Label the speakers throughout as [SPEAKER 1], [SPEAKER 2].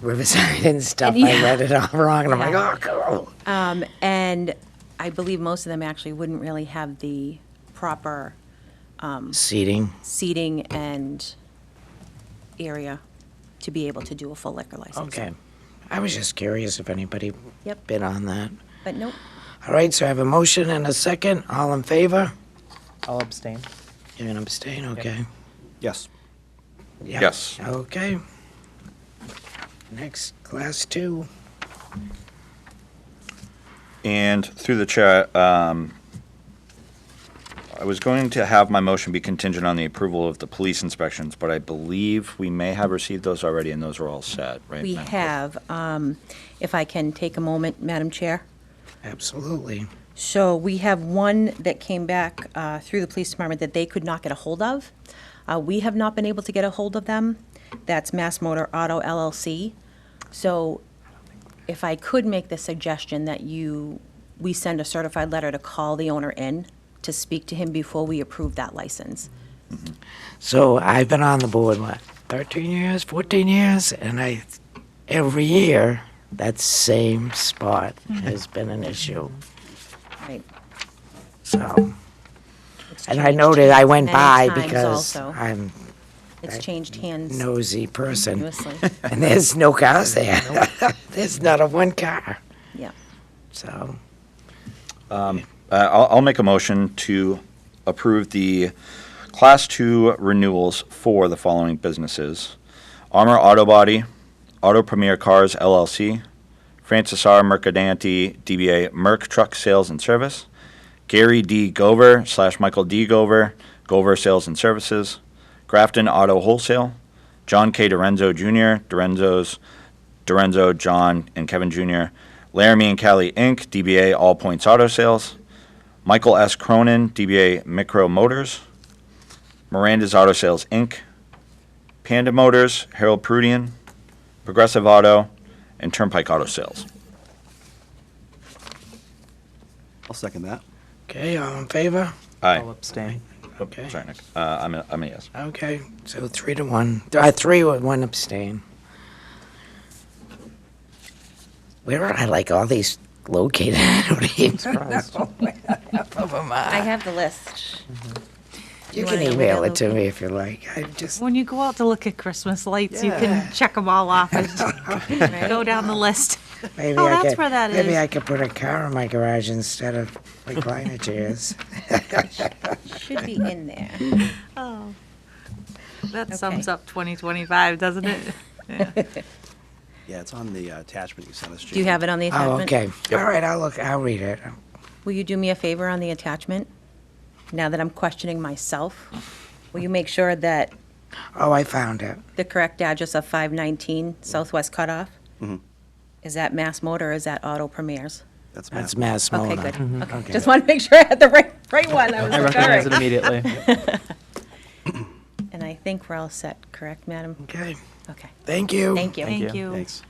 [SPEAKER 1] Riverside and stuff.
[SPEAKER 2] And
[SPEAKER 1] I
[SPEAKER 2] yeah.
[SPEAKER 1] read it all wrong, and I'm
[SPEAKER 2] Yeah.
[SPEAKER 1] like, oh, cool.
[SPEAKER 2] Um, And I believe most of them actually wouldn't really have the proper Uh,
[SPEAKER 1] Seating.
[SPEAKER 2] seating and area to be able to do a full liquor license.
[SPEAKER 1] Okay. I was just curious if anybody
[SPEAKER 2] Yep.
[SPEAKER 1] bid on that.
[SPEAKER 2] But nope,
[SPEAKER 1] All right, so I have a motion and a second. All in favor?
[SPEAKER 3] I'll abstain.
[SPEAKER 1] You're going to abstain? Okay.
[SPEAKER 4] Yes.
[SPEAKER 1] Yeah.
[SPEAKER 4] Yes.
[SPEAKER 1] Okay. Next, class two.
[SPEAKER 4] And through the chair, um, I was going to have my motion be contingent on the approval of the police inspections, but I believe we may have received those already, and those are all set, right?
[SPEAKER 2] we
[SPEAKER 4] Madam Clerk?
[SPEAKER 2] have, um, if I can take a moment, Madam Chair.
[SPEAKER 1] Absolutely.
[SPEAKER 2] So we have one that came back uh, through the police department that they could not get a hold of. Uh, We have not been able to get a hold of them. That's Mass Motor Auto LLC. So if I could make the suggestion that you, we send a certified letter to call the owner in to speak to him before we approve that license.
[SPEAKER 1] So I've been on the board, what, 13 years, 14 years? And I, every year, that same spot
[SPEAKER 2] Mm-hmm.
[SPEAKER 1] has been an issue.
[SPEAKER 2] Right.
[SPEAKER 1] So,
[SPEAKER 2] It's
[SPEAKER 1] and I
[SPEAKER 2] changed
[SPEAKER 1] noted I went
[SPEAKER 2] many
[SPEAKER 1] by
[SPEAKER 2] times
[SPEAKER 1] because
[SPEAKER 2] also.
[SPEAKER 1] I'm
[SPEAKER 2] It's changed hands
[SPEAKER 1] nosy person.
[SPEAKER 2] continuously.
[SPEAKER 1] And there's no cars there. There's not a one car.
[SPEAKER 2] Yeah.
[SPEAKER 1] So,
[SPEAKER 4] Uh, I'll, I'll make a motion to approve the Class 2 renewals for the following businesses. Armor Auto Body, Auto Premier Cars LLC, Francis R. Mercadanti, DBA Merc Truck Sales and Service, Gary D. Gover slash Michael D. Gover, Gover Sales and Services, Grafton Auto Wholesale, John K. Dorenzo Jr., Dorenzo's, Dorenzo, John, and Kevin Jr., Laramie and Cali Inc., DBA All Points Auto Sales, Michael S. Cronin, DBA Micro Motors, Miranda's Auto Sales Inc., Panda Motors, Harold Prudian, Progressive Auto, and Turnpike Auto Sales.
[SPEAKER 5] I'll second that.
[SPEAKER 1] okay, all in favor?
[SPEAKER 3] I'll
[SPEAKER 4] Aye.
[SPEAKER 3] abstain.
[SPEAKER 1] Okay.
[SPEAKER 4] Sorry, Nick. Uh, I'm a, I'm a yes.
[SPEAKER 1] Okay, so three to one. Uh, three with one abstain. Where are I like all these located? I don't even know where half of 'em are.
[SPEAKER 2] I have the list.
[SPEAKER 1] You
[SPEAKER 2] You
[SPEAKER 1] can
[SPEAKER 2] wanna know where
[SPEAKER 1] email
[SPEAKER 2] they're
[SPEAKER 1] it to me if you like. I just
[SPEAKER 6] When you go out to look at Christmas lights, you can check them all off and go down the list.
[SPEAKER 1] maybe
[SPEAKER 6] Oh,
[SPEAKER 1] I
[SPEAKER 6] that's
[SPEAKER 1] could,
[SPEAKER 6] where that
[SPEAKER 1] maybe
[SPEAKER 6] is.
[SPEAKER 1] I could put a car in my garage instead of recliner chairs.
[SPEAKER 2] Should be in there.
[SPEAKER 6] Oh, That
[SPEAKER 2] sums
[SPEAKER 6] sums up 2025, doesn't it?
[SPEAKER 5] Yeah, it's on the uh, attachment you sent us.
[SPEAKER 2] Do you have it on the
[SPEAKER 1] Oh,
[SPEAKER 2] attachment?
[SPEAKER 1] okay. All right, I'll look. I'll read it.
[SPEAKER 2] Will you do me a favor on the attachment? Now that I'm questioning myself, will you make sure that
[SPEAKER 1] Oh, I found it.
[SPEAKER 2] the correct address of 519 Southwest Cutoff? Is that Mass Motor or is that Auto Premier's?
[SPEAKER 5] That's
[SPEAKER 1] That's
[SPEAKER 5] Matt.
[SPEAKER 1] Mass
[SPEAKER 2] Okay,
[SPEAKER 1] Mona.
[SPEAKER 2] good. Okay,
[SPEAKER 1] Okay.
[SPEAKER 2] just want to make sure I had the right, right one. I was
[SPEAKER 3] I
[SPEAKER 2] like, all
[SPEAKER 3] recognize it
[SPEAKER 2] right.
[SPEAKER 3] immediately.
[SPEAKER 2] And I think we're all set, correct, madam?
[SPEAKER 1] Okay.
[SPEAKER 2] Okay,
[SPEAKER 1] Mm-hmm. Thank you.
[SPEAKER 2] thank you.
[SPEAKER 6] Thank
[SPEAKER 3] you.
[SPEAKER 6] you.
[SPEAKER 5] Thanks.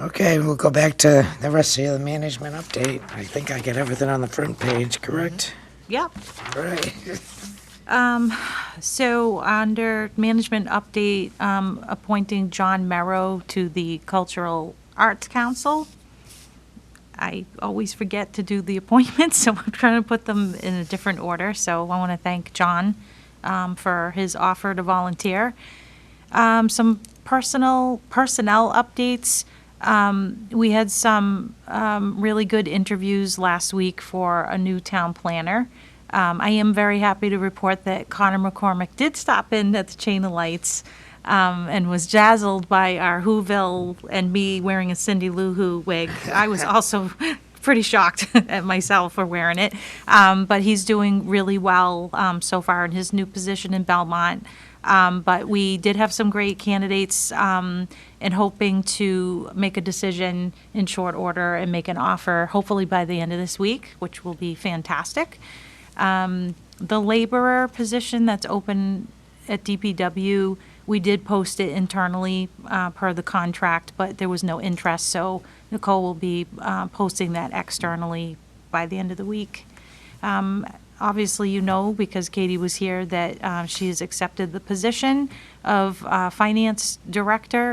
[SPEAKER 1] Okay, we'll go back to the rest of the management update. I think I got everything on the front page, correct?
[SPEAKER 6] Yep.
[SPEAKER 2] Mm-hmm.
[SPEAKER 1] All right.
[SPEAKER 6] So under management update, um, appointing John Merrow to the Cultural Arts Council. I always forget to do the appointments, so I'm trying to put them in a different order. So I want to thank John um, for his offer to volunteer. Um, some personal personnel updates. Um, we had some um, really good interviews last week for a new town planner. Um, I am very happy to report that Connor McCormick did stop in at the Chain of Lights um, and was dazzled by our Whoville and me wearing a Cindy Lou Who wig. I was also pretty shocked at myself for wearing it. Um, but he's doing really well um, so far in his new position in Belmont. Um, but we did have some great candidates um, and hoping to make a decision in short order and make an offer hopefully by the end of this week, which will be fantastic. Um, the laborer position that's open at DPW, we did post it internally uh, per the contract, but there was no interest. So Nicole will be uh, posting that externally by the end of the week. Um, Obviously, you know, because Katie was here, that uh, she has accepted the position of uh, Finance Director